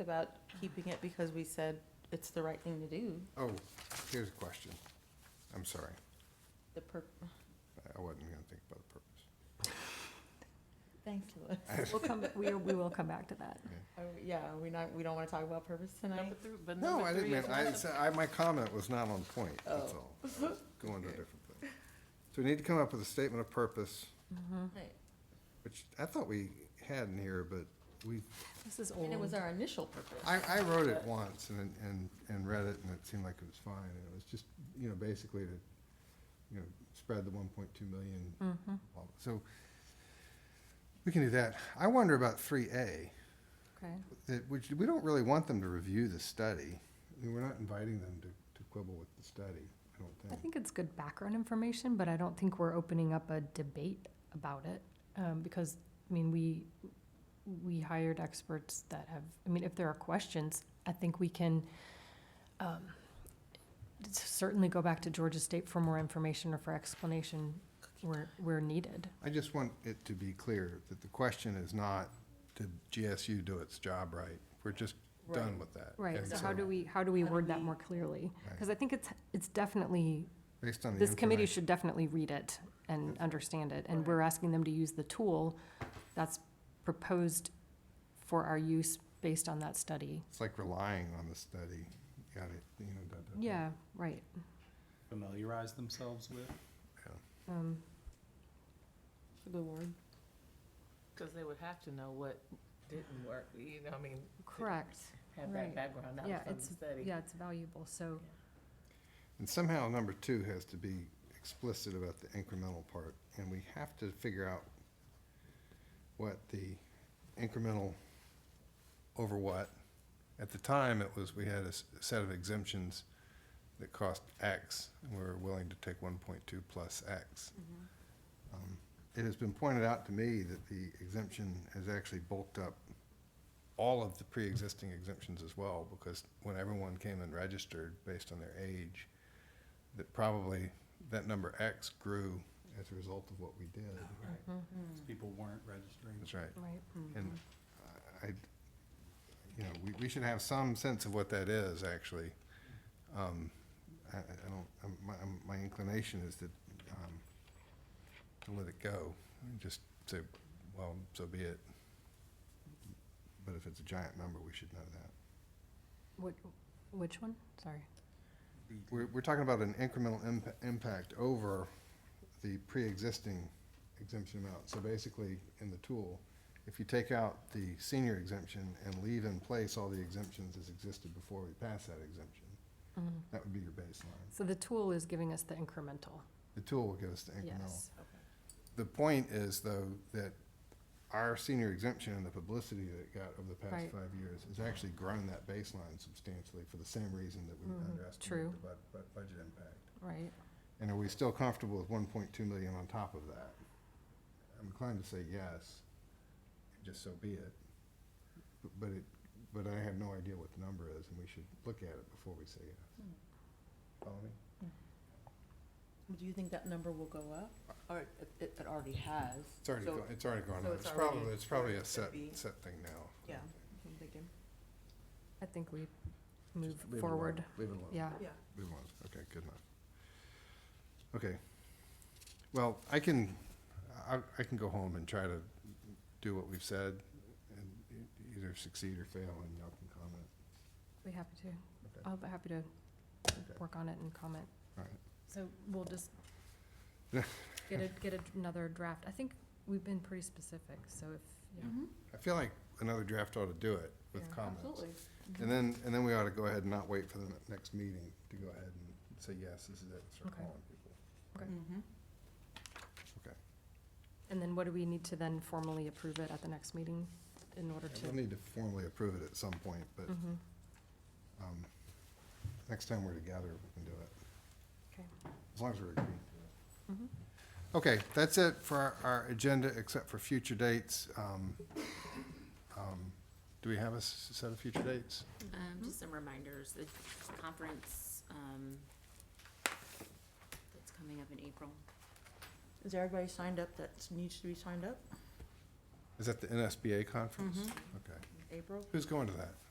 about keeping it because we said it's the right thing to do, Oh, here's a question. I'm sorry. the per, I wasn't gonna think about the purpose. thanks, Louis. We'll come, we, we will come back to that. Oh, yeah, we not, we don't wanna talk about purpose tonight? Number three, but No, I number didn't three mean, is I, not a- said- I, my comment was not on point, that's Oh. all. I was Going to a different place. So we need to come up with a statement of purpose, Right. which I thought we had in here, but we, This is And it was old. our initial purpose. I, I wrote it once and, and, and read it and it seemed like it was fine. And it was just, you know, basically to, you know, spread the one point two million. Mm-hmm. all- So we can do that. I wonder about three A. Okay, that, which, we don't really want them to review the study. I mean, We're not inviting them to, to quibble with the study, I I don't think. think it's good background information, but I don't think we're opening up a debate about it. Um, because, I mean, we, we hired experts that have, I mean, if there are questions, I think we can, um, certainly go back to Georgia State for more information or for explanation where, where needed. I just want it to be clear that the question is not, did GSU do its job right? We're just done Right. with that. Right, And so how do we, how do we How do word that we- more clearly? Right. Because I think it's, it's definitely Based on the. This committee information- should definitely read it and understand it, and we're asking them to use the tool that's proposed for our use based on that study. It's like relying on the study, got it, you know, da, da, da. Yeah, right. familiarize themselves with. Um, Good word. Cause they would have to know what didn't work, you know, I mean, Correct. have Right. that background Yeah, knowledge from the it's- study. Yeah, it's valuable, so, And somehow number two has to be explicit about the incremental part, and we have to figure out what the incremental over what. At the time, it was, we had a s- set of exemptions that cost X, and we were willing to take one point two plus X. Um, It has been pointed out to me that the exemption has actually bulked up all of the pre-existing exemptions as well, because when everyone came and registered based on their age, that probably that number X grew as a result of what we did. Right. People weren't registering. That's right. right. hmm. And I, I- you know, we, we should have some sense of what that is, actually. Um, I, I I don't, I'm- my, I'm- my inclination is that, um, to let it go, and just say, well, so be it. But if it's a giant number, we should know that. What, which one? Sorry. We're, we're talking about an incremental impa- impact over the pre-existing exemption amount. So basically, in the tool, if you take out the senior exemption and leave in place all the exemptions as existed before we passed that exemption, Mhm. that would be your baseline. So the tool is giving us the incremental, The tool will give us the incremental. yes. The point is, though, that our senior exemption and the publicity that it got over the past Right. five years has actually grown that baseline substantially for the same reason that we Mhm, true. underestimated the bud- bud- budget impact. Right, And are we still comfortable with one point two million on top of that? I'm inclined to say yes, just so be it. B- But it, but I have no idea what the number is, and we should look at it before we say yes. Hmm. Follow me? Do you think that number will go up? Or it, it it already has? It's already, So- go- it's already gone so up. it's It's probably, already- it's probably a it set, be- set thing now. Yeah. I'm thinking. I think we move Just leave it alone. forward, Leave it alone. yeah. Yeah. We won't, okay, good enough. Okay. Well, I can, I, I can go home and try to do what we've said and e- either succeed or fail and y'all can comment. Be happy to, Okay. I'll be happy to work on it and comment. All right. So we'll just get a, get a- another draft. I think we've been pretty specific, so if, Mm-hmm. yeah. I feel like another draft ought to do it with Oh. Yeah, comments. Absolutely. And then, and then we ought to go ahead and not wait for the ne- next meeting to go ahead and say, yes, this is it, start Okay. calling people. Okay. Mm-hmm. Okay. And then what do we need to then formally approve it at the next meeting in order We'll to? need to formally approve it at some point, but, Mhm. um, next time we're together, we can do it. Okay. As long as we're agreeing to Mhm. it. Okay, that's it for our- our agenda, except for future dates. Um, um, Do we have a s- set of future dates? Um, just some reminders, the conference, um, that's coming up in April. Is everybody signed up that needs to be signed up? Is that the NSBA conference? Okay. April? Who's going to that?